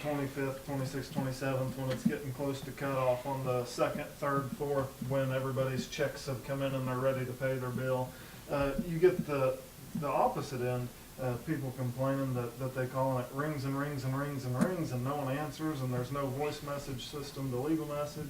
twenty-fifth, twenty-sixth, twenty-seventh, when it's getting close to cutoff on the second, third, fourth, when everybody's checks have come in and they're ready to pay their bill. Uh, you get the, the opposite end, uh, people complaining that, that they call and it rings and rings and rings and rings and no one answers and there's no voice message system to legal message.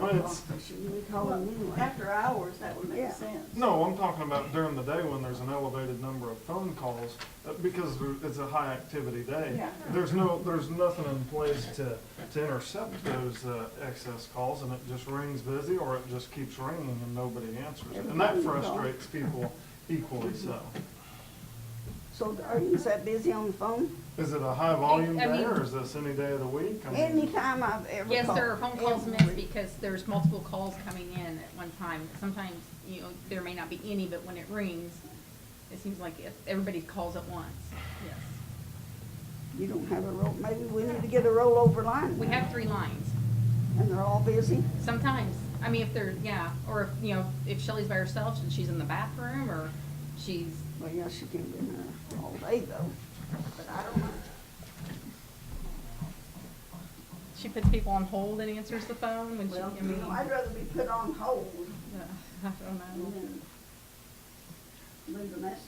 Well, it's- Should we call them anyway? After hours, that would make Yeah. sense. No, I'm talking about during the day when there's an elevated number of phone calls, uh, because there- it's a high activity day. Yeah. There's no, there's nothing in place to, to intercept those uh, excess calls, and it just rings busy, or it just keeps ringing and nobody answers. it. And that frustrates people equally so. So are you that busy on the phone? Is it a high volume I day, mean- or is this any day of the week? I mean, Anytime I've ever called. Yes, there are phone calls missed every- because there's multiple calls coming in at one time. Sometimes, you know, there may not be any, but when it rings, it seems like if everybody calls at once, yes. You don't have a roll, maybe we need to get a rollover line. We then, have three lines. And they're all busy? Sometimes, I mean, if they're, yeah, or if, you know, if Shelley's by herself and she's in the bathroom or she's, Well, yeah, she can be in there all day though, but I don't know. she puts people on hold and answers the phone when she, I Well, you mean, know, uh, I'd rather be put on hold I don't know. than leave a message.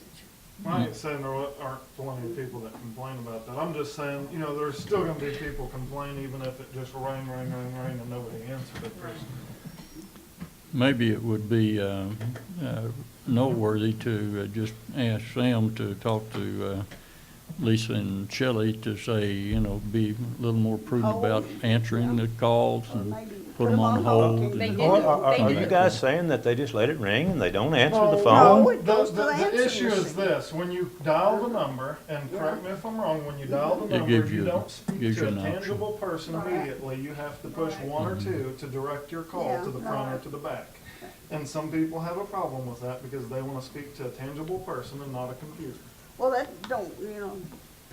I ain't saying there wa- aren't plenty of people that complain about that. I'm just saying, you know, there's still gonna be people complain even if it just rang, rang, rang, rang and nobody answered it. There's- Maybe it would be uh, uh, noteworthy to uh, just ask Sam to talk to uh, Lisa and Shelley to say, you know, be a little more Oh, prudent about answering the calls and Maybe put them on hold. They and- did. Are, are- They are do. you guys saying that they just let it ring and they don't answer Well, the No, phone? it goes to Oh, the- the answering The issue is machine. this, when you dial the number, and correct me if I'm wrong, when you dial the It number, gives you you- don't speak gives to you a an option. Mm-hmm. tangible person Right. immediately. You have to push Right. one or two to direct your call Yeah, to the front or right. to the back. And some people have a problem with that because they wanna speak to a tangible person and not a computer. Well, that don't, you know,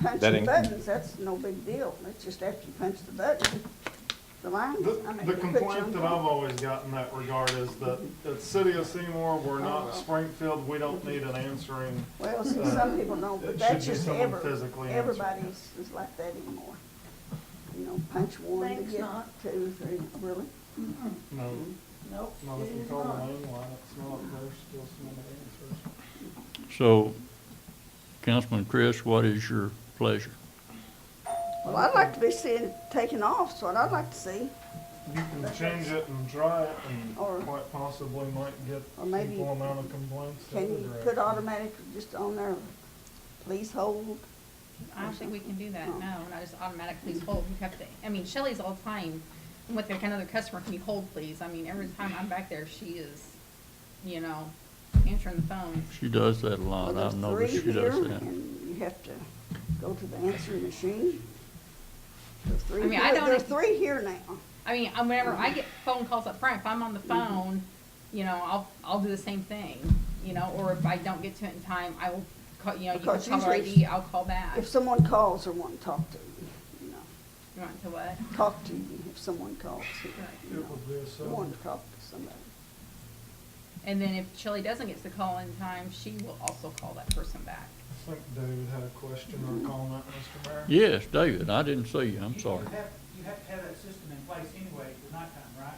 That punching ain't- buttons, that's no big deal. That's just after you punch the button, the line, I The mean. the they put you complaint on that I've always got in that regard is that, that city of Seymour, we're not Springfield, we don't need an answering. Well, see, uh, some people don't, it but that's should be just someone ever, physically answering. everybody's is like that anymore. You know, punch one to Thanks, get not. two, three, really? No, Nope, not if it you is call the not. main line, it's not, there's still some answers. So, Councilman Chris, what is your pleasure? Well, I'd like to be seeing it taken off, is what I'd like to see. You can change it and try it and Or- quite possibly might get Or maybe- equal amount of complaints. the Can other you put direction. automatic just on there, please hold? I don't think we can do that, Oh. no, not just automatic, please hold, you have to, I mean, Shelley's all the time, I'm with like another customer, can you hold please, I mean, every time I'm back there, she is, you know, answering the phone. She does Oh, that a Well, lot. there's I've noticed three she does here, that. And you have to go to the answering machine. There's three I mean, I here- don't There's ex- three here now. I mean, I- whenever I get phone calls up front, if I'm on the Mm-hmm. phone, you know, I'll, I'll do the same thing, you know, or if I don't get to it in time, I will call, you know, you can Because call usually ID, I'll call back. If someone calls or want to talk to you, you know, You want to what? talk to you if someone calls, you It know, would be a you seven. want to talk to somebody. And then if Shelley doesn't get the call in time, she will also call that person back. I think David had a question or a comment, Mr. Mayor. Yes, David, I didn't see you, I'm sorry. You have, you have to have that system in place anyway for nighttime,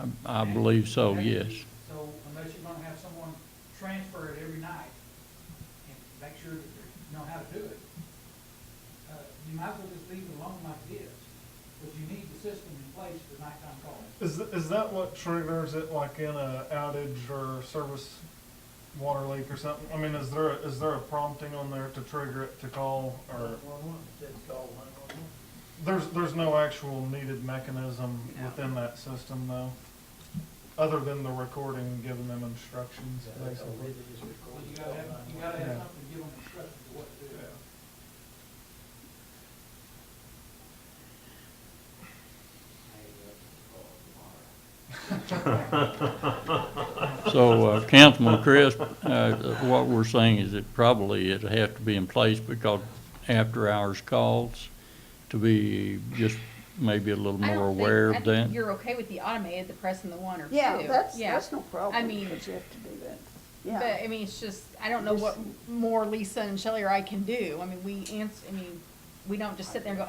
right? I- I believe so, yes. So unless you're gonna have someone transfer it every night and make sure that they know how to do it, uh, you might as well just leave it alone like it is, but you need the system in place for nighttime calls. Is, th- is that what triggers it, like in a outage or service water leak or something? I mean, is there, a- is there a prompting on there to trigger it to call or? There's, there's no actual needed mechanism No. within that system though, other than the recording, and giving them instructions, basically. So you gotta have, you gotta Yeah. have something to give them instructions of what to do. uh, So, uh, Councilman Chris, uh, what we're saying is that probably it'd have to be in place because after-hours calls to be just maybe a little I don't more think- aware I of think that. You're okay with the automated, the press and the one or two. Yeah, that's, Yeah. that's no problem, but you mean- have to do that. But, Yeah, I mean, it's just, I don't know what more Lisa and Shelley or I can do. I mean, we ans, I mean, we don't just sit there and go,